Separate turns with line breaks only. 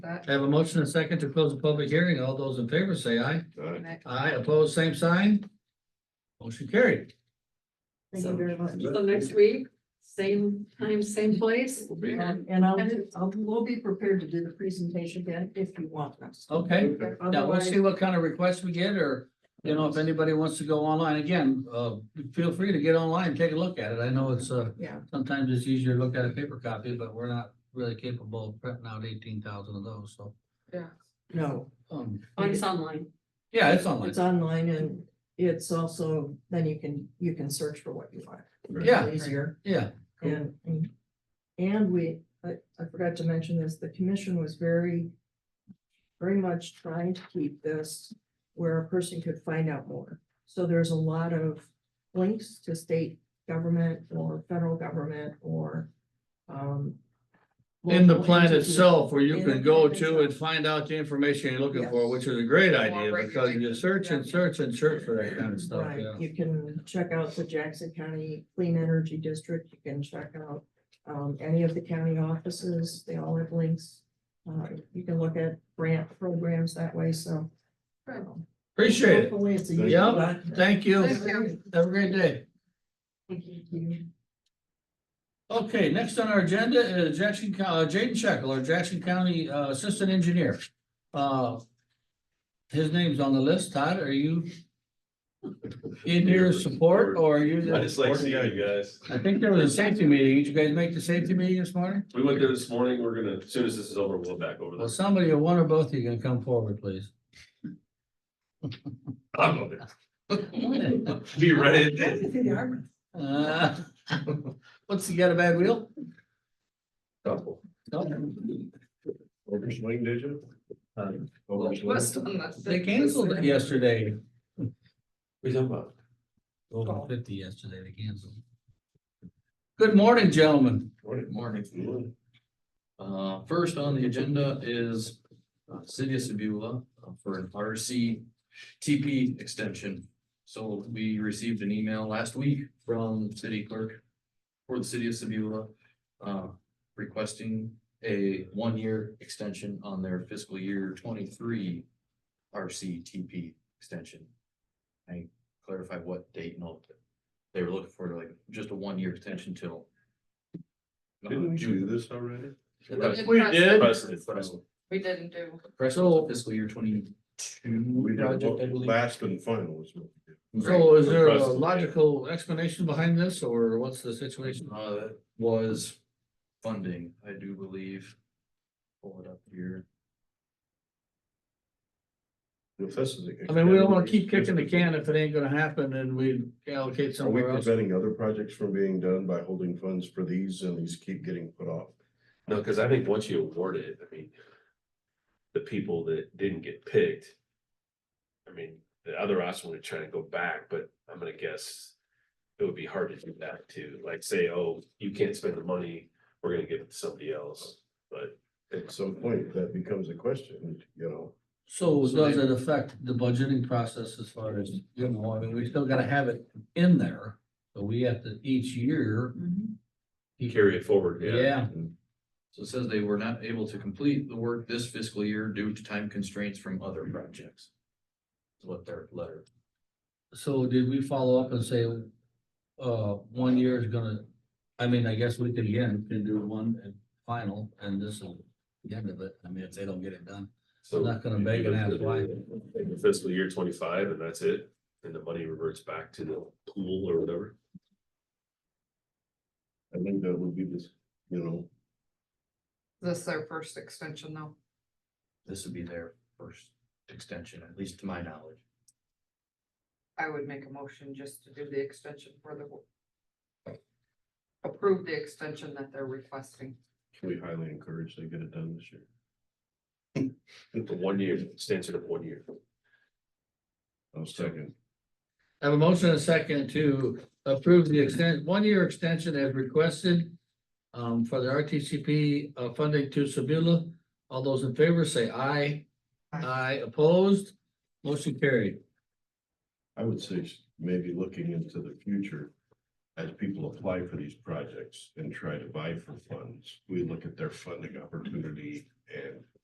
That-
I have a motion and a second to close the public hearing. All those in favor say aye.
Aye.
that-
Aye, opposed, same sign. Motion carried.
Thank you very much.
So-
So next week, same time, same place.
We'll be here.
And and I'll, do- I'll, we'll be prepared to do the presentation then if you want us.
Okay, now we'll
Otherwise-
see what kind of requests we get or, you know, if anybody wants to go online again, uh, feel free to get online, take a look at it. I know it's, uh,
Yeah.
sometimes it's easier to look at a paper copy, but we're not really capable of printing out eighteen thousand of those, so.
No,
Um,
Oh, it's online.
yeah, it's online.
it's online and it's also, then you can, you can search for what you want.
Yeah.
Easier.
Yeah,
And, and- and we, I, I forgot to mention this, the commission was very, very much trying to keep this where a person could find out more. So there's a lot of links to state government or federal government or, um.
in the
local
plan
entities.
itself where you
In the
can go
plan
to and
itself.
find out the information you're looking for,
Yes.
which is a great idea
More
because you search and
regulations.
search and search for that kind of stuff,
Right,
yeah.
you can check out the Jackson County Clean Energy District, you can check out, um, any of the county offices, they all have links. Uh, you can look at grant programs that way, so. um,
Appreciate it.
Hopefully it's a.
Thank
useful
you.
document.
Thank you.
Thank you.
Have a great day.
Thank you.
Okay, next on our agenda is Jackson, Co- uh, Jaden Shackle, our Jackson County uh, Assistant Engineer. Uh, His name's on the list. Todd, are you in your support or are you? the-
I just like seeing you guys.
I think there was a safety meeting. Did you guys make the safety meeting this morning?
We went there this morning. We're gonna, as soon as this is over, we'll back over
Well,
there.
somebody or one or both of you can come forward, please.
I'll go there. Be ready.
Uh, What's, you got a bad wheel?
Couple.
No,
Overswing, did you? Overswing.
West on that.
They canceled it yesterday.
We talking about?
Over fifty yesterday, they canceled. Good morning, gentlemen.
Morning. Morning.
Uh, first on the agenda is uh, City of Sebula uh, for an RC TP extension. So we received an email last week from City Clerk for the City of Sebula, uh, requesting a one-year extension on their fiscal year twenty-three RC TP extension. I clarify what date and all. They were looking for like just a one-year extension till. uh,
Didn't we
June.
do this already?
That's-
We did.
President, president.
We didn't do.
Crestwood fiscal year twenty-two
We did
project, I
what-
believe.
last and final is what we did.
So is there a
Impressive.
logical explanation behind this or what's the situation?
Uh, that was funding, I do believe. Pull it up here.
If this is a-
I mean, we don't wanna keep kicking the can if it ain't gonna happen and we allocate
Are we
somewhere else.
preventing other projects from being done by holding funds for these and these keep getting put off?
No, because I think once you award it, I mean, the people that didn't get picked. I mean, the other option would try to go back, but I'm gonna guess it would be hard to do that too. Like say, oh, you can't spend the money, we're gonna give it to somebody else, but.
At some point, that becomes a question, you know?
So does it affect the budgeting process as far as, you know, I mean, we still gotta have it in there. So we have to each year,
Carry it forward, yeah.
yeah,
So it says they were not able to complete the work this fiscal year due to time constraints from other projects. Is What their letter,
So did we follow up and say, uh, one year is gonna, I mean, I guess we could again, can do one and final, and this will the end of it, I mean, if they don't get it done.
So
I'm not gonna
you
beg and
do
ask
it
why.
in the Fiscal year twenty-five and that's it, and the money reverts back to the pool or whatever.
I think that would be this, you know,
This is their first extension though.
this would be their first extension, at least to my knowledge.
I would make a motion just to do the extension for the. Approve the extension that they're requesting.
we highly encourage they get it done this year.
The one year, extension of one year.
I'll second.
I have a motion and a second to approve the extent, one-year extension as requested um, for the RTCP uh, funding to Sabula. All those in favor say aye.
Aye.
Aye opposed, motion carried.
I would say s- maybe looking into the future as people apply for these projects and try to buy for funds, we look at their funding opportunity and